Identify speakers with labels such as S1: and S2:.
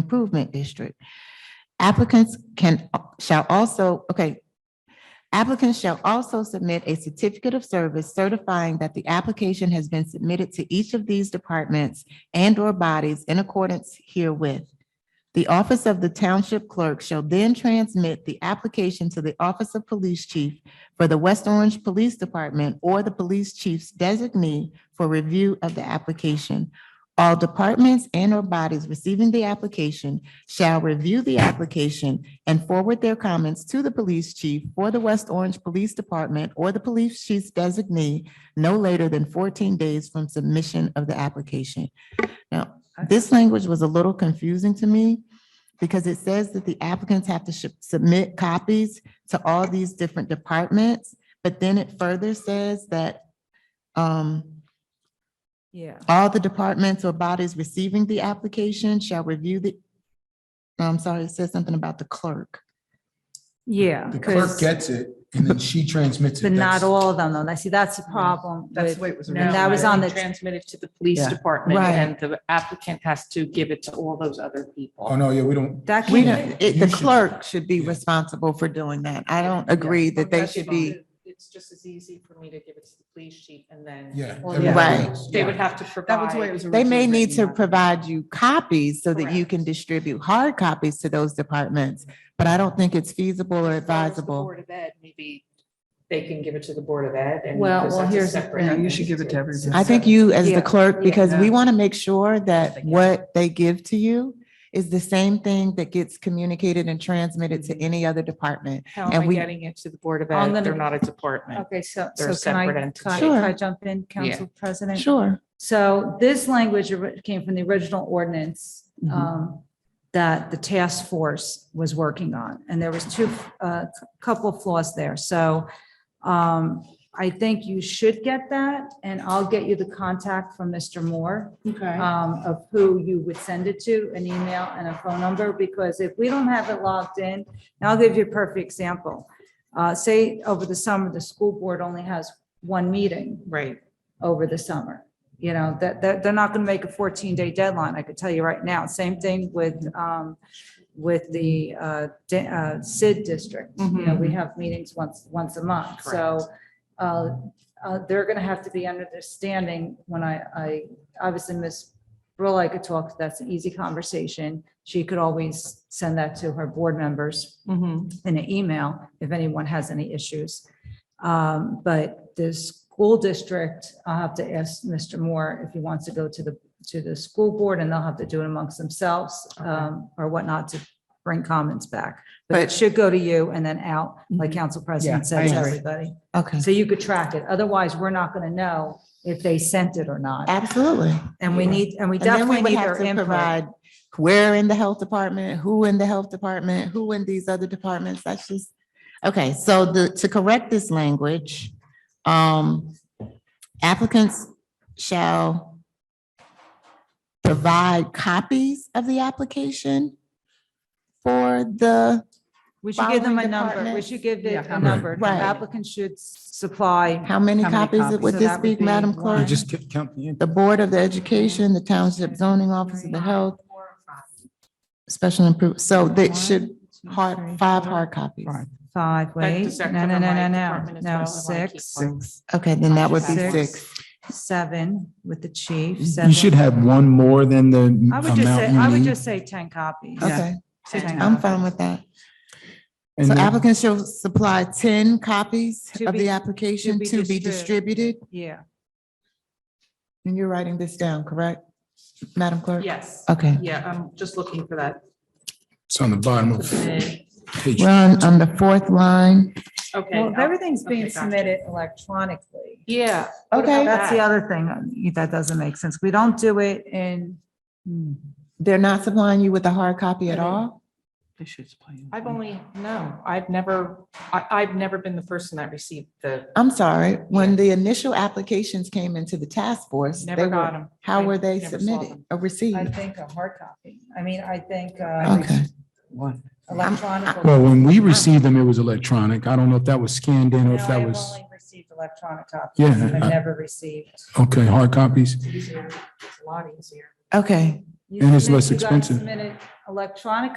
S1: Improvement District. Applicants can, shall also, okay. Applicants shall also submit a certificate of service certifying that the application has been submitted to each of these departments and/or bodies in accordance herewith. The office of the township clerk shall then transmit the application to the office of police chief for the West Orange Police Department or the police chief's designee for review of the application. All departments and or bodies receiving the application shall review the application and forward their comments to the police chief for the West Orange Police Department or the police chief's designee no later than fourteen days from submission of the application. Now, this language was a little confusing to me because it says that the applicants have to sh- submit copies to all these different departments, but then it further says that um,
S2: Yeah.
S1: all the departments or bodies receiving the application shall review the, No, I'm sorry, it says something about the clerk.
S2: Yeah.
S3: The clerk
S2: 'cause-
S3: gets it and then she transmits it.
S2: But not
S3: That's-
S2: all of them, though. Now, see, that's the problem.
S4: That's
S2: with-
S4: the way it was
S2: And
S4: originally.
S2: that was on the,
S5: Transmitted to the police
S2: Yeah.
S5: department
S1: Right.
S5: and the applicant has to give it to all those other
S3: Oh,
S5: people.
S3: no, yeah, we don't.
S2: that
S1: We
S2: came,
S1: don't, it- the
S3: You should-
S1: clerk should be
S3: yeah.
S1: responsible for doing that. I don't agree that they should be,
S5: It's just as easy for me to give it to the police chief and then.
S3: Yeah.
S5: Or
S3: everybody
S1: Right.
S3: else.
S5: They would have to
S4: That was the way it
S5: provide.
S4: was.
S1: they may
S4: originally
S1: need to
S4: written.
S1: provide you copies so that you can distribute hard copies to those departments, but I don't think it's feasible or
S5: As far as the
S1: advisable.
S5: Board of Ed, maybe they can give it to the Board of Ed and.
S2: Well,
S5: because
S2: well,
S5: that's a
S2: here's the
S5: separate-
S4: thing. You should give it to everybody.
S1: I think you, as
S2: Yeah.
S1: the clerk, because we
S4: Yeah.
S1: want to make sure that what they give to you is the same thing that gets communicated and transmitted to any other department.
S5: How
S1: and
S5: am I
S1: we-
S5: getting it to the Board of
S2: I'm
S5: Ed?
S2: gonna-
S5: They're not a department.
S2: okay, so,
S5: They're
S2: so can I,
S5: separate
S2: can I-
S5: entities.
S2: can I
S1: Sure.
S2: jump in, Council President?
S1: Sure.
S2: So this language ori- came from the original ordinance
S1: Mm-hmm.
S2: um, that the task force was working on. And there was two, a couple of flaws there. So um, I think you should get that, and I'll get you the contact from Mr. Moore
S5: Okay.
S2: um, of who you would send it to, an email and a phone number, because if we don't have it logged in, and I'll give you a perfect example. Uh, say over the summer, the school board only has one meeting
S5: Right.
S2: over the summer. You know, that, that, they're not gonna make a fourteen day deadline, I could tell you right now. Same thing with, um, with the, uh, di- uh, Sid district. You know, we have meetings once, once a month, so, uh, uh, they're gonna have to be understanding when I, I, obviously Miss Brill, I could talk, that's an easy conversation. She could always send that to her board members in an email if anyone has any issues. Um, But the school district, I'll have to ask Mr. Moore if he wants to go to the, to the school board and they'll have to do it amongst themselves um, or whatnot to bring comments back. But it
S1: But- Mm-hmm.
S2: should go to you and then out, like Council President
S3: Yeah, I
S2: said to
S3: agree.
S2: everybody.
S1: Okay,
S2: So you could track it. Otherwise, we're not going to know if they sent it or not.
S1: absolutely.
S2: And we need, and we
S1: And then we
S2: definitely
S1: would
S2: need
S1: have
S2: their
S1: to
S2: input.
S1: provide where in the health department, who in the health department, who in these other departments, that's just. Okay, so the, to correct this language, um, applicants shall provide copies of the application for the,
S2: We should give them a
S1: following
S2: number. We
S1: departments.
S2: should give
S4: Yeah,
S2: it
S4: how
S2: a
S3: many?
S2: number.
S1: Right.
S2: Applicants should s- supply
S1: how many
S4: How many
S1: copies
S4: copies?
S1: would
S2: So
S1: this
S2: that
S1: be,
S2: would be
S1: Madam
S2: one.
S3: You
S1: Clerk?
S3: just ca- count the.
S1: The Board of the Education, the Township Zoning Office of the Health, Special Improve, so that should, hard, five hard copies.
S3: Right.
S2: Five,
S5: That-
S2: wait,
S5: does that
S2: no, no,
S5: cover
S2: no,
S5: my
S2: no, no,
S5: department as well,
S2: no,
S5: if I keep
S2: six,
S5: one?
S1: Okay, then that would be
S2: Six.
S1: six.
S2: seven with the chief,
S3: You should
S2: seven.
S3: have one more than the
S2: I would just say,
S3: amount
S2: I
S3: you
S2: would
S3: need.
S2: just say ten copies.
S4: Yeah.
S1: Okay,
S2: Ten
S1: I'm
S2: copies.
S1: fine with that.
S3: And
S1: So
S3: then-
S1: applicants shall supply ten copies
S2: To
S1: of
S2: be-
S1: the
S2: to
S1: application
S2: be
S1: to be
S2: distrib-
S1: distributed.
S2: Yeah,
S1: And you're writing this down, correct, Madam Clerk?
S5: Yes.
S1: Okay,
S5: Yeah, I'm just looking for that.
S3: It's on the bottom of
S5: Okay.
S3: page.
S1: we're on, on the fourth line.
S2: well,
S5: I'll-
S2: everything's being
S5: okay, gotcha.
S2: submitted electronically.
S5: Yeah. what about
S1: Okay,
S2: That's the other thing, that doesn't make sense. We don't do it in, hmm,
S1: they're not supplying you with a hard copy at all?
S4: They should supply you.
S5: I've only, no, I've never, I, I've never been the person that received the,
S1: I'm sorry, when the initial applications came into the task force, they
S5: never got
S1: were,
S5: them.
S1: how
S5: I
S1: were they
S5: never saw
S1: submitted
S5: them.
S1: or
S2: I
S1: received?
S2: think, a hard copy. I mean, I think uh,
S1: Okay,
S3: Well,
S2: electronic.
S3: when we received them, it was electronic. I don't know if that was scanned in or if that was,
S2: Received electronic copies.
S3: Yeah,
S2: I've
S3: I-
S2: never received.
S3: okay, hard copies.
S5: It's easier. It's a lot easier.
S1: okay,
S2: You
S3: And it's
S2: submit-
S3: less
S2: you gotta
S3: expensive.
S2: submit it Electronic